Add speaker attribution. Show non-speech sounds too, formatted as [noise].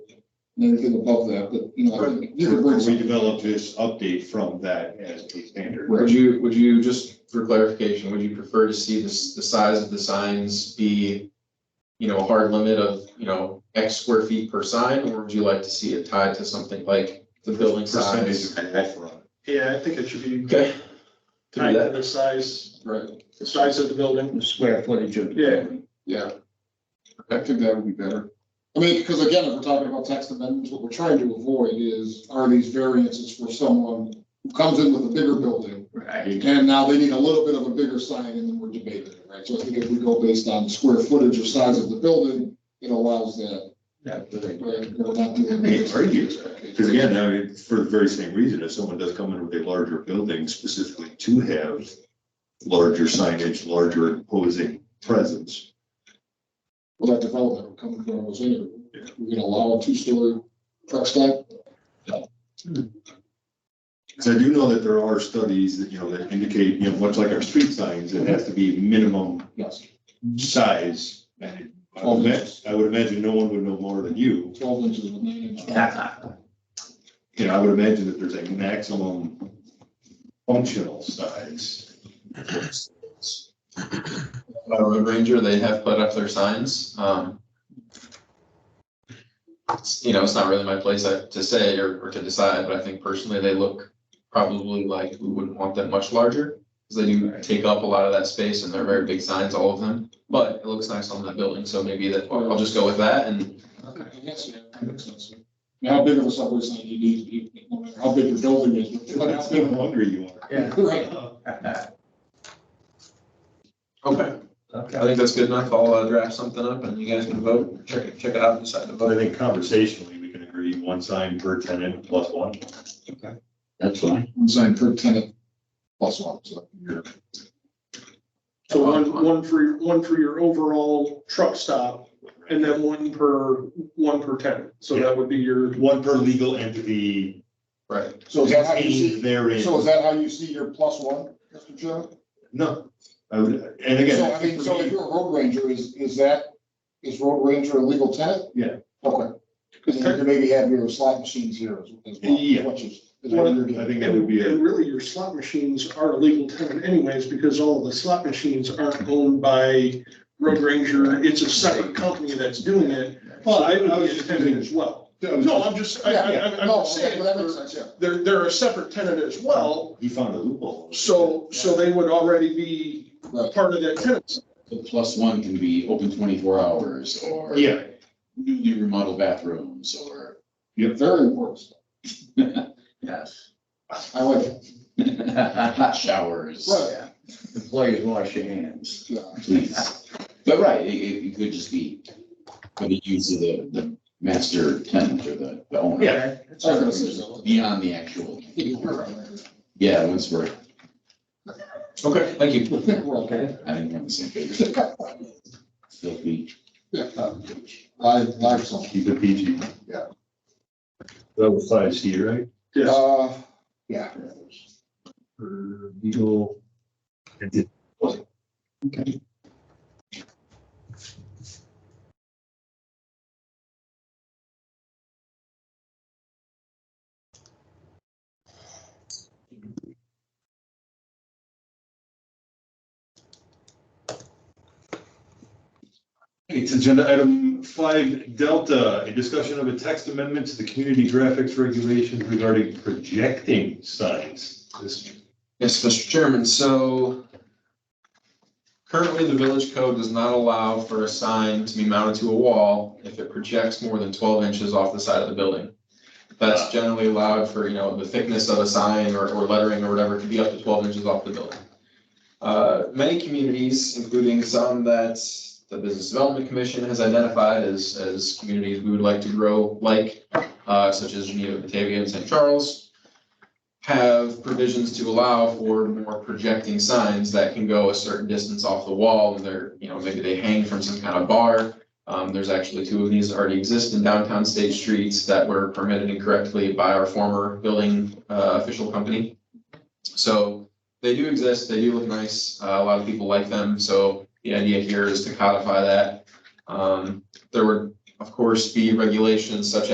Speaker 1: and anything above that, but, you know, I think you could bring
Speaker 2: We
Speaker 1: some.
Speaker 2: developed this update from that as a standard.
Speaker 3: Would you, would you, just for clarification, would you prefer to see this, the size of the signs be, you know, a hard limit of, you know, X square feet per sign, or would you like to see it tied to something like the building
Speaker 2: Percentage
Speaker 3: size?
Speaker 2: of buffer on it.
Speaker 4: Yeah, I think it should be
Speaker 3: Okay. To do
Speaker 4: tied to
Speaker 3: that,
Speaker 4: the size,
Speaker 3: right,
Speaker 4: the size of the building.
Speaker 5: the square footage of. the
Speaker 4: Yeah.
Speaker 5: building.
Speaker 1: Yeah. I think that would be better. I mean, because again, if we're talking about text amendments, what we're trying to avoid is, are these variances for someone who comes in with a bigger building,
Speaker 5: Right.
Speaker 1: and now they need a little bit of a bigger sign, and then we're debating it, right? So I think if we go based on square footage or size of the building, it allows that, right? We're not doing
Speaker 2: Hey,
Speaker 1: this.
Speaker 2: are you? Because again, I mean, for the very same reason, if someone does come in with a larger building specifically to have larger signage, larger imposing presence.
Speaker 1: Well, that development would come from us anyway. We're gonna allow a two-story truck stop.
Speaker 2: Because I do know that there are studies that, you know, that indicate, you know, much like our street signs, it has to be minimum
Speaker 1: Yes.
Speaker 2: size. And I would imagine, I would imagine no one would know more than you.
Speaker 1: Twelve inches with nine inches.
Speaker 5: Yeah.
Speaker 2: You know, I would imagine that there's a maximum functional size.
Speaker 3: by Road Ranger, they have put up their signs, um. it's- You know, it's not really my place I- to say or, or to decide, but I think personally they look probably like we wouldn't want them much larger. Cause they do take up a lot of that space and they're very big signs, all of them, but it looks nice on that building, so maybe that, I'll just go with that and.
Speaker 1: I guess, yeah, that makes sense. Now, How big of a subway sign you need, you- no matter how big your building is. but
Speaker 2: That's
Speaker 1: how
Speaker 2: how
Speaker 1: big-
Speaker 2: hungry you are.
Speaker 1: Right.
Speaker 3: Okay. I think that's good enough. I'll uh, draft something up and you guys can vote, check, check it out, and decide to
Speaker 2: But I
Speaker 3: vote.
Speaker 2: think conversationally, we can agree one sign per tenant plus one.
Speaker 5: That's fine.
Speaker 1: One sign per tenant, plus one, so.
Speaker 4: So one, one for, one for your overall truck stop and then one per, one per tenant. So that would be your,
Speaker 2: One per legal entity
Speaker 3: Right.
Speaker 1: So is that how you
Speaker 2: contained
Speaker 1: see,
Speaker 2: therein.
Speaker 1: so is that how you see your plus one, Mr. Chairman?
Speaker 2: No, I would, and
Speaker 1: So
Speaker 2: again, I
Speaker 1: I mean,
Speaker 2: think
Speaker 1: so
Speaker 2: for
Speaker 1: if
Speaker 2: me,
Speaker 1: you're a road ranger, is, is that, is road ranger a legal tenant?
Speaker 2: Yeah.
Speaker 1: Okay. Because you could maybe have your slot machines here as as well.
Speaker 2: Yeah.
Speaker 1: Which is. is what you're
Speaker 2: I
Speaker 1: doing.
Speaker 2: think that would
Speaker 4: and
Speaker 2: be, a-
Speaker 4: and really your slot machines are a legal tenant anyways, because all of the slot machines aren't owned by Road Ranger. It's a separate company that's doing it. Well, I, I was just thinking as well. No, I'm just, I, I, I'm- I'm
Speaker 1: No,
Speaker 4: just
Speaker 1: okay,
Speaker 4: saying,
Speaker 1: well, that makes sense, yeah.
Speaker 4: they're, they're a separate tenant as well.
Speaker 2: he found a loophole.
Speaker 4: So, so they would already be
Speaker 1: Right.
Speaker 4: part of that tenant.
Speaker 6: The plus one can be open twenty-four hours or.
Speaker 2: Yeah,
Speaker 6: Newly remodeled bathrooms or. [laughs]
Speaker 1: Very important.
Speaker 2: [laughs]
Speaker 5: Yes.
Speaker 1: I like it.
Speaker 6: Hot showers,
Speaker 1: Right.
Speaker 5: Employees wash your hands.
Speaker 1: Yeah.
Speaker 6: please. But right, it, it it could just be for the use of the, the master tenant or the, the owner.
Speaker 2: Yeah.
Speaker 1: I was gonna say so.
Speaker 6: Beyond the actual,
Speaker 1: You're right.
Speaker 6: yeah, once we're,
Speaker 3: Okay, thank you.
Speaker 1: Well,
Speaker 5: Okay.
Speaker 6: I think we're on the
Speaker 1: [laughs]
Speaker 6: same page. Still be.
Speaker 1: Live, live song.
Speaker 2: keep it PG.
Speaker 1: Yeah.
Speaker 2: That was size C, right?
Speaker 1: Uh, yeah.
Speaker 2: For legal. entity. It's agenda item five delta, a discussion of a text amendment to the community graphics regulations regarding projecting signs. This
Speaker 3: Yes, Mr. Chairman, so currently the village code does not allow for a sign to be mounted to a wall if it projects more than twelve inches off the side of the building. That's generally allowed for, you know, the thickness of a sign or, or lettering or whatever to be up to twelve inches off the building. Uh, many communities, including some that the Business Development Commission has identified as, as communities we would like to grow like, uh, such as Geneva, Batavia, and St. Charles, have provisions to allow for more projecting signs that can go a certain distance off the wall, and they're, you know, maybe they hang from some kind of bar. Um, there's actually two of these that already exist in downtown State Streets that were permitted incorrectly by our former building, uh, official company. So they do exist, they do look nice, uh, a lot of people like them, so the idea here is to codify that. Um, there would, of course, be regulations such